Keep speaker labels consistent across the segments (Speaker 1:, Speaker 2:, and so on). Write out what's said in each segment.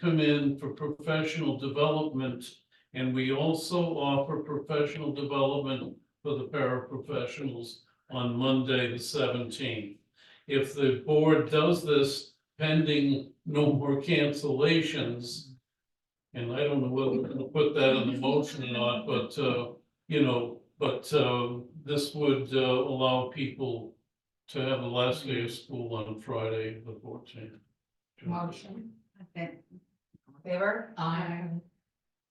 Speaker 1: come in for professional development. And we also offer professional development for the paraprofessionals on Monday, the seventeenth. If the board does this pending no more cancellations. And I don't know whether we're gonna put that in the motion or not, but uh, you know, but uh, this would uh, allow people. To have the last day of school on Friday, the fourteenth.
Speaker 2: Motion.
Speaker 3: Okay. Favor?
Speaker 2: Aye.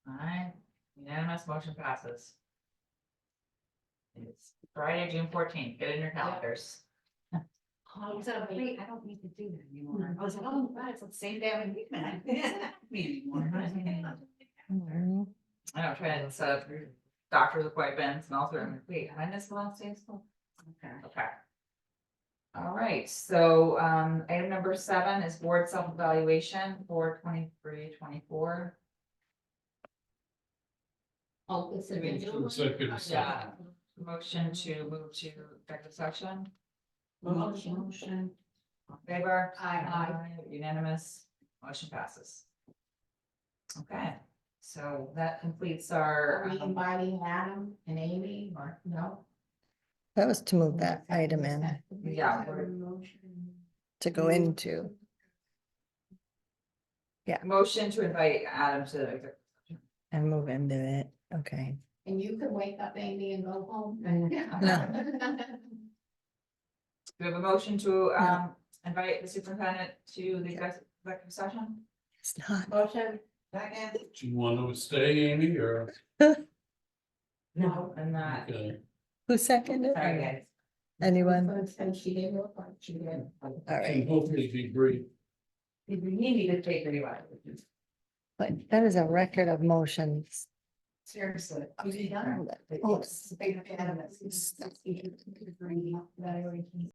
Speaker 3: Aye, unanimous motion passes. It's Friday, June fourteenth, get in your calendars.
Speaker 2: Oh,
Speaker 4: So wait, I don't need to do that anymore. I was like, oh, God, it's the same day I'm leaving. I can't Me anymore.
Speaker 3: I know, trying to set up doctor's appointments and all sorts of, wait, am I missed the last day of school?
Speaker 4: Okay.
Speaker 3: Okay. All right, so um item number seven is board self-evaluation for twenty-three, twenty-four.
Speaker 2: Oh, it's a
Speaker 1: Into
Speaker 2: new
Speaker 1: Executive session.
Speaker 3: Yeah. Motion to move to executive section,
Speaker 2: motion.
Speaker 4: Motion.
Speaker 3: All in favor?
Speaker 2: Aye.
Speaker 3: Unanimous, motion passes. Okay, so that completes our.
Speaker 2: Are we
Speaker 3: um,
Speaker 2: inviting Adam and Amy or no?
Speaker 5: That was to move that Mm-hmm. item in,
Speaker 3: Yeah.
Speaker 5: to go into.
Speaker 3: Motion to invite Adam to, the executive-
Speaker 5: And move into it, okay.
Speaker 2: And you can wake up Amy and go home.
Speaker 3: do we have a motion to um invite the superintendent to the exec- executive session?
Speaker 5: It's not,
Speaker 2: Motion.
Speaker 1: Do you want to stay, Amy, or?
Speaker 2: No.
Speaker 3: And that,
Speaker 1: okay.
Speaker 5: who seconded?
Speaker 3: sorry guys,
Speaker 5: Anyone?
Speaker 2: And she didn't look like she did.
Speaker 5: All
Speaker 1: Can
Speaker 5: right,
Speaker 1: hopefully be brief.
Speaker 2: You need to take anybody.
Speaker 5: but that is a record of motions.
Speaker 2: Seriously.
Speaker 5: Oops.
Speaker 2: Big fan of it.